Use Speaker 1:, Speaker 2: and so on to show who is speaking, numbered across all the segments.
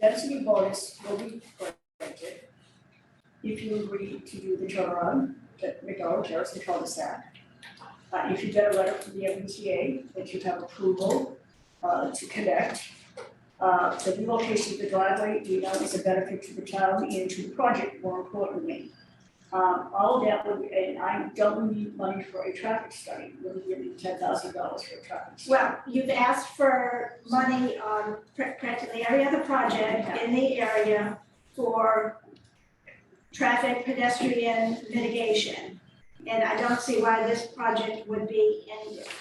Speaker 1: density bonus will be granted if you agree to do the turnaround at McDonald Terrace and cul-de-sac. Uh, if you get a letter from the MBTA that you have approval, uh, to connect. Uh, the relocation of the driveway, we know is a benefit to the town and to the project, more importantly. Um, all of that would, and I don't need money for a traffic study, we're giving ten thousand dollars for a traffic study.
Speaker 2: Well, you've asked for money on pr- practically every other project in the area for traffic pedestrian mitigation. And I don't see why this project would be any different.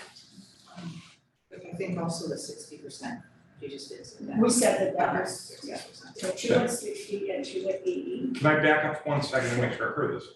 Speaker 3: But I think also the sixty percent, you just did say that.
Speaker 1: We said that that was, yeah,
Speaker 3: 60%.
Speaker 1: so two hundred sixty and two hundred eighty.
Speaker 4: Can I back up one second and make sure I heard this?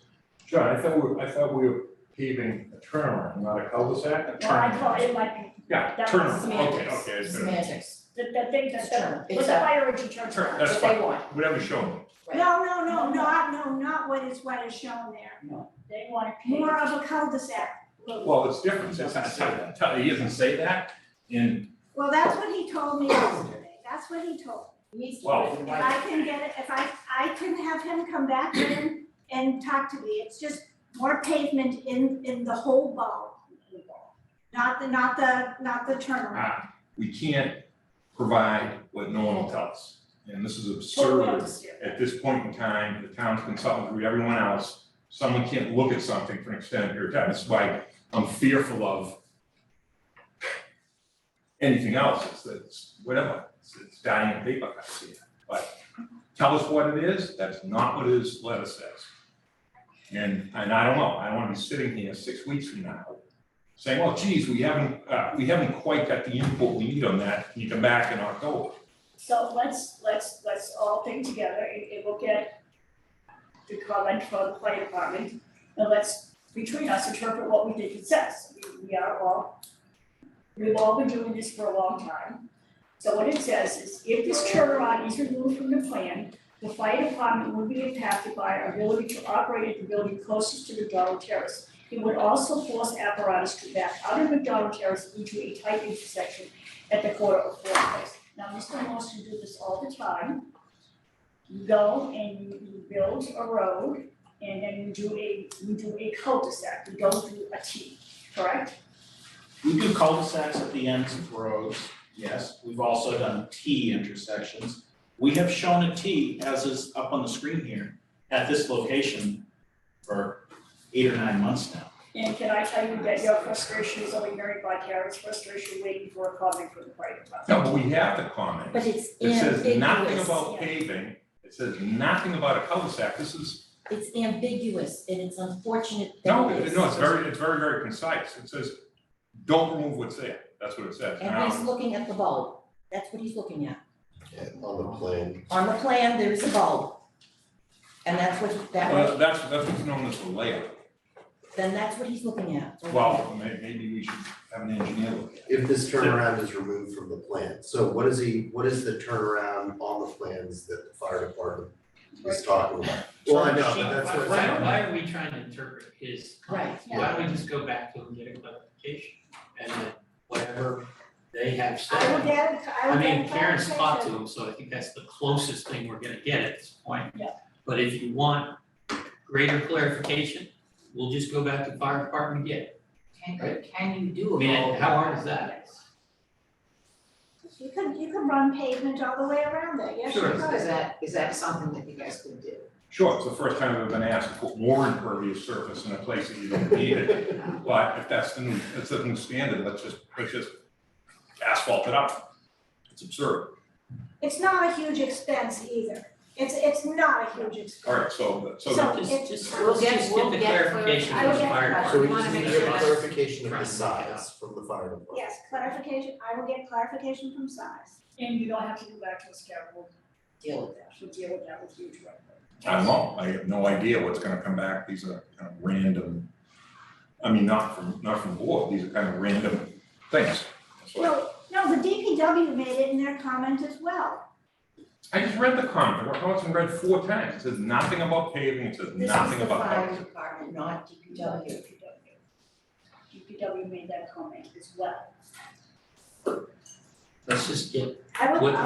Speaker 5: John, I thought we, I thought we were paving a turnaround, not a cul-de-sac.
Speaker 1: Well, I thought it might be,
Speaker 4: Yeah,
Speaker 1: That
Speaker 4: turn,
Speaker 1: was
Speaker 4: okay, okay, it's been,
Speaker 6: Semantics,
Speaker 1: the, the thing that,
Speaker 6: it's
Speaker 1: that,
Speaker 6: term,
Speaker 1: was
Speaker 6: it's
Speaker 1: the
Speaker 6: a,
Speaker 1: priority term.
Speaker 4: Turn, that's
Speaker 6: what they want,
Speaker 4: whatever shown,
Speaker 2: No, no, no, no, I- no, not what is, what is shown there.
Speaker 1: They want to pay.
Speaker 2: More of a cul-de-sac.
Speaker 4: well, it's different, it's not, it's not- it's not- he doesn't say that, and,
Speaker 2: Well, that's what he told me yesterday. That's what he told me.
Speaker 6: needs to
Speaker 4: Well,
Speaker 6: put it in
Speaker 2: If
Speaker 6: writing.
Speaker 2: I can get it, if I, I can have him come back in and talk to me, it's just more pavement in, in the whole ball. Not the, not the, not the turnaround.
Speaker 4: ah, we can't provide what no one will tell us. And this is
Speaker 1: Totally
Speaker 4: absurd,
Speaker 1: understand.
Speaker 4: at this point in time, the town's consultant, through everyone else, someone can't look at something for an extended period of time, that's why I'm fearful of anything else, it's, it's, whatever, it's, it's dying in paper, I see it, but tell us what it is, that's not what his letter says. And, and I don't know, I don't wanna be sitting here six weeks from now saying, well, geez, we haven't, uh, we haven't quite got the input we need on that, can you come back in October?
Speaker 1: So let's, let's, let's all think together and, and we'll get the comment from the fire department. And let's, between us, interpret what we think it says. We, we are all, we've all been doing this for a long time. So what it says is if this turnaround is removed from the plan, the fire department would be impacted by our ability to operate at the building closest to McDonald Terrace. It would also force apparatus to back out of McDonald Terrace into a tight intersection at the corner of Ford Place. Now, Mr. Morrison do this all the time. You go and you you build a road and then you do a, you do a cul-de-sac, you don't do a T, correct?
Speaker 7: We do cul-de-sacs at the ends of roads,
Speaker 4: Yes.
Speaker 7: we've also done T intersections. We have shown a T, as is up on the screen here, at this location for eight or nine months now.
Speaker 1: And can I tell you that your frustration is only married by Karen's frustration waiting for a comment from the fire department?
Speaker 4: No, but we have the comment.
Speaker 6: But it's
Speaker 4: It says nothing
Speaker 6: ambiguous,
Speaker 4: about
Speaker 1: yeah.
Speaker 4: paving, it says nothing about a cul-de-sac, this is,
Speaker 6: it's ambiguous, and it's unfortunate
Speaker 4: no,
Speaker 6: that
Speaker 4: it-
Speaker 6: it's.
Speaker 4: no, it's very, it's very, very concise, it says, don't remove what's there, that's what it says.
Speaker 6: And he's
Speaker 4: Now,
Speaker 6: looking at the bulb, that's what he's looking at,
Speaker 8: Yeah, on the plane.
Speaker 6: on the plan, there is a bulb. And that's what, that,
Speaker 4: Well, that's, that's what's known as the layout,
Speaker 6: then that's what he's looking at.
Speaker 4: well, may, maybe we should have an engineer look at it.
Speaker 8: If this turnaround is removed from the plan, so what is he, what is the turnaround on the plans that the fire department is talking about? Well, I know, but that's
Speaker 9: Why-
Speaker 8: what.
Speaker 9: Why, why are we trying to interpret his?
Speaker 6: Right.
Speaker 9: Why don't we just go back to him and get a clarification and then whatever they have
Speaker 2: I would
Speaker 9: said.
Speaker 2: get, it- I
Speaker 9: I
Speaker 2: would get.
Speaker 9: mean, Karen's talked to
Speaker 2: clarification.
Speaker 9: him, so I think that's the closest thing we're gonna get at this point.
Speaker 1: Yeah.
Speaker 9: But if you want greater clarification, we'll just go back to the fire department again.
Speaker 3: Can,
Speaker 9: Right.
Speaker 3: can you
Speaker 9: I
Speaker 3: do a
Speaker 9: mean,
Speaker 3: bulb?
Speaker 9: how hard is that?
Speaker 2: You could, you could run pavement all the way around there, yes, you
Speaker 9: Sure.
Speaker 2: could.
Speaker 3: Is that, is that something that you guys could do?
Speaker 4: Sure, it's the first time I've been asked to put more impervious surface in a place that you don't need it, but if that's the new, if that's the new standard, let's just, let's just asphalt it up. It's absurd,
Speaker 2: It's not a huge expense either. It's, it's not a huge expense.
Speaker 4: all right, so, so.
Speaker 2: So
Speaker 9: Just,
Speaker 2: it-
Speaker 9: just,
Speaker 3: We'll
Speaker 9: let's
Speaker 3: get-
Speaker 9: just
Speaker 3: we'll
Speaker 9: get the
Speaker 3: get
Speaker 9: clarification
Speaker 2: clarif- I
Speaker 9: from the
Speaker 2: will get
Speaker 9: fire
Speaker 2: clarif-
Speaker 9: department.
Speaker 8: So we
Speaker 3: wanna
Speaker 8: just
Speaker 3: make
Speaker 8: need
Speaker 3: sure
Speaker 8: a
Speaker 3: that's-
Speaker 8: clarification of
Speaker 9: Trying
Speaker 8: the
Speaker 9: to make it up.
Speaker 8: size from the fire department.
Speaker 2: Yes, clarification, I will get clarification from size.
Speaker 1: And you don't have to go back to a schedule,
Speaker 6: Deal with that.
Speaker 1: she'll deal with that with you directly.
Speaker 4: I don't know, I have no idea what's gonna come back, these are kind of random, I mean, not from, not from the board, these are kind of random things. That's why-
Speaker 2: No, no, the DPW made it in their comment as well.
Speaker 4: I just read the comment, I wrote and read four times, it says nothing about paving, it says
Speaker 6: This is
Speaker 4: nothing
Speaker 6: the
Speaker 4: about.
Speaker 6: fire department, not DPW.
Speaker 1: DPW made that comment as well.
Speaker 9: Let's just get
Speaker 2: I would,
Speaker 9: What-
Speaker 2: I